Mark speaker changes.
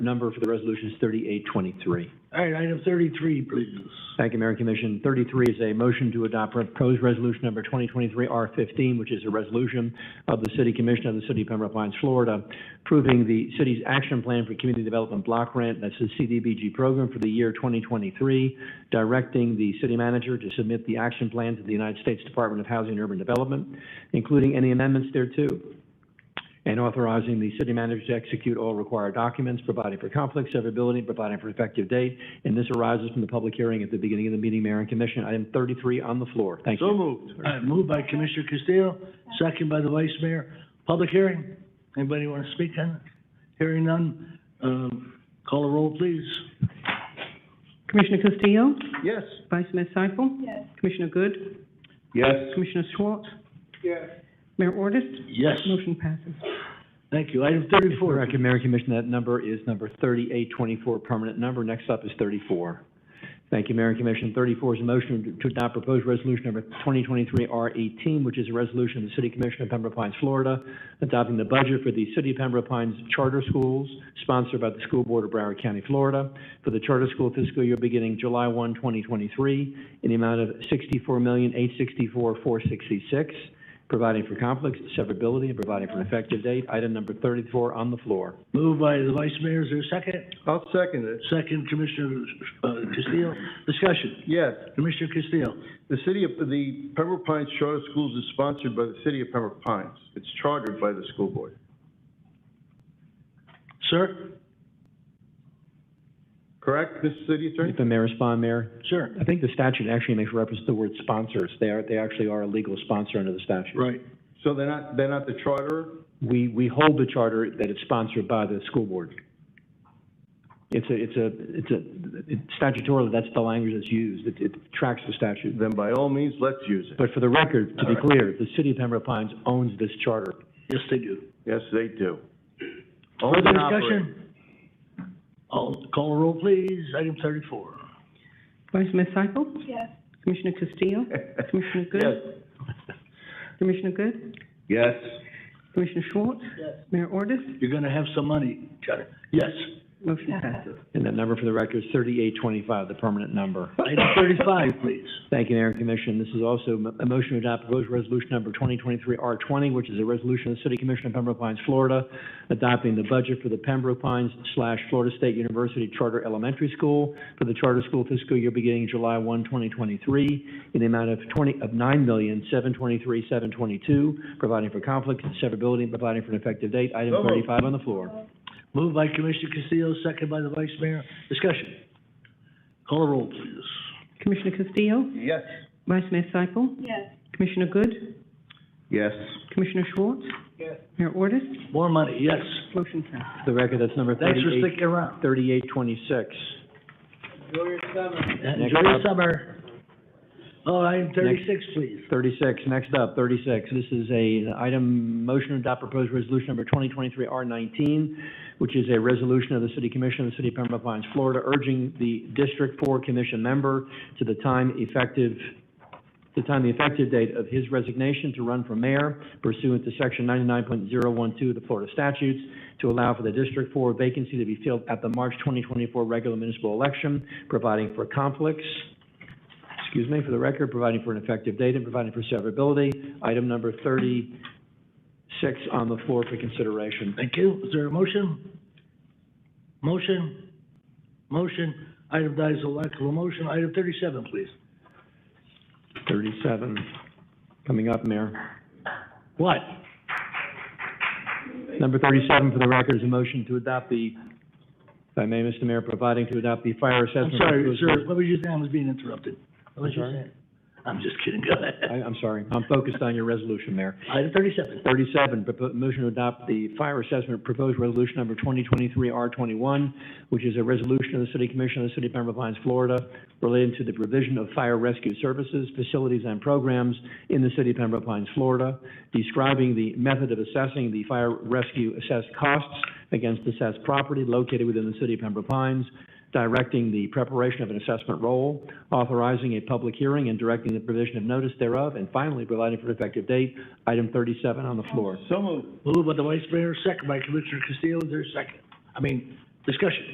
Speaker 1: number for the resolution is thirty-eight twenty-three.
Speaker 2: All right, item thirty-three, please.
Speaker 1: Thank you, Mayor and Commission. Thirty-three is a motion to adopt proposed resolution number twenty twenty-three R fifteen, which is a resolution of the City Commission of the City of Pembroke Pines, Florida, approving the city's action plan for community development block grant, that's the CDBG program for the year twenty twenty-three, directing the city manager to submit the action plan to the United States Department of Housing and Urban Development, including any amendments thereto and authorizing the city manager to execute all required documents, providing for conflict severability, providing for effective date. And this arises from the public hearing at the beginning of the meeting, Mayor and Commission. Item thirty-three on the floor. Thank
Speaker 2: So
Speaker 1: you.
Speaker 2: moved. All right, moved by Commissioner Castillo, second by the Vice Mayor. Public hearing. Anybody want to speak on it? Hearing none, um, call a roll, please.
Speaker 3: Commissioner Castillo,
Speaker 2: Yes.
Speaker 3: Vice Mayor Seifel. Yes. Commissioner Good,
Speaker 2: Yes.
Speaker 3: Commissioner Schwartz. Yes. Mayor Ordus,
Speaker 2: Yes,
Speaker 3: motion passes.
Speaker 2: thank you. Item
Speaker 1: For the
Speaker 2: thirty-four.
Speaker 1: record, Mayor and Commission, that number is number thirty-eight twenty-four, permanent number. Next up is thirty-four. Thank you, Mayor and Commission. Thirty-four is a motion to adopt proposed resolution number twenty twenty-three R eighteen, which is a resolution of the City Commission of Pembroke Pines, Florida, adopting the budget for the City of Pembroke Pines Charter Schools, sponsored by the School Board of Broward County, Florida, for the charter school fiscal year beginning July 1, 2023, in the amount of sixty-four million, eight sixty-four, four sixty-six, providing for conflicts, severability, and providing for an effective date. Item number thirty-four on the floor.
Speaker 2: Moved by the Vice Mayor, is there a second?
Speaker 4: I'll second it.
Speaker 2: Second, Commissioner uh, Castillo. Discussion.
Speaker 4: Yes,
Speaker 2: Commissioner Castillo.
Speaker 4: the city of, the Pembroke Pines Charter Schools is sponsored by the city of Pembroke Pines. It's chartered by the school board.
Speaker 2: Sir?
Speaker 4: Correct, Mr. City Attorney?
Speaker 1: If the mayor respond, Mayor,
Speaker 2: Sir.
Speaker 1: I think the statute actually makes reference to the word sponsors. They are, they actually are a legal sponsor under the statute.
Speaker 2: Right.
Speaker 4: So they're not, they're not the charter?
Speaker 1: We, we hold the charter that it's sponsored by the school board. It's a, it's a, it's a, it- statutorily, that's the language that's used. It, it tracks the statute.
Speaker 4: Then by all means, let's use it.
Speaker 1: But for the record, to be clear, the city of Pembroke Pines owns this charter.
Speaker 2: Yes, they do.
Speaker 4: Yes, they do. Owned
Speaker 2: Further
Speaker 4: and operated.
Speaker 2: discussion? I'll call a roll, please. Item thirty-four.
Speaker 3: Vice Mayor Seifel. Yes. Commissioner Castillo, Commissioner Good, Commissioner Good,
Speaker 4: Yes.
Speaker 3: Commissioner Schwartz. Yes. Mayor Ordus,
Speaker 2: You're gonna have some money, Charlie. Yes.
Speaker 3: motion passes.
Speaker 1: And that number for the record is thirty-eight twenty-five, the permanent number.
Speaker 2: Item thirty-five, please.
Speaker 1: Thank you, Mayor and Commission. This is also m- a motion to adopt proposed resolution number 2023-R20, which is a resolution of the City Commission of Pembroke Pines, Florida, adopting the budget for the Pembroke Pines slash Florida State University Charter Elementary School for the charter school fiscal year beginning July 1, 2023, in the amount of 20, of $9,723,722, providing for conflict, severability, and providing for an effective date. Item
Speaker 4: So moved.
Speaker 1: 35 on the floor.
Speaker 2: Moved by Commissioner Castillo, second by the Vice Mayor. Discussion. Call a roll, please.
Speaker 3: Commissioner Castillo,
Speaker 4: Yes.
Speaker 3: Vice Mayor Seifel. Yes. Commissioner Good,
Speaker 4: Yes.
Speaker 3: Commissioner Schwartz. Yes. Mayor Ordus,
Speaker 2: More money, yes.
Speaker 3: motion passes.
Speaker 1: For the record, that's number
Speaker 2: Thanks for
Speaker 1: 38
Speaker 2: sticking around.
Speaker 1: 3826.
Speaker 2: Enjoy your summer. Oh, item thirty-six, please.
Speaker 1: 36, next up, 36. This is a item, motion to adopt proposed resolution number 2023-R19, which is a resolution of the City Commission of the City of Pembroke Pines, Florida, urging the District 4 Commission member to the time effective, the time the effective date of his resignation to run for mayor pursuant to Section 99.012 of the Florida statutes to allow for the District 4 vacancy to be filled at the March 2024 regular municipal election, providing for conflicts, excuse me, for the record, providing for an effective date and providing for severability. Item number thirty-six on the floor for consideration.
Speaker 2: Thank you. Is there a motion? Motion? Motion? Item dies a lack of a motion. Item thirty-seven, please.
Speaker 1: Thirty-seven, coming up, Mayor.
Speaker 2: What?
Speaker 1: Number thirty-seven for the record is a motion to adopt the, if I may, Mr. Mayor, providing to adopt the fire
Speaker 2: I'm
Speaker 1: assessment.
Speaker 2: sorry, sir, what was you saying? I was being interrupted. What was you
Speaker 1: sorry?
Speaker 2: saying? I'm just kidding. Go
Speaker 1: I,
Speaker 2: ahead.
Speaker 1: I'm sorry, I'm focused on your resolution, Mayor.
Speaker 2: Item thirty-seven.
Speaker 1: 37, propo- motion to adopt the fire assessment proposed resolution number 2023-R21, which is a resolution of the City Commission of the City of Pembroke Pines, Florida, relating to the provision of fire rescue services, facilities, and programs in the City of Pembroke Pines, Florida, describing the method of assessing the fire rescue assessed costs against assessed property located within the City of Pembroke Pines, directing the preparation of an assessment roll, authorizing a public hearing and directing the provision of notice thereof, and finally, providing for an effective date. Item 37 on the floor.
Speaker 4: So moved.
Speaker 2: Moved by the Vice Mayor, second by Commissioner Castillo. Is there a second? I mean, Discussion.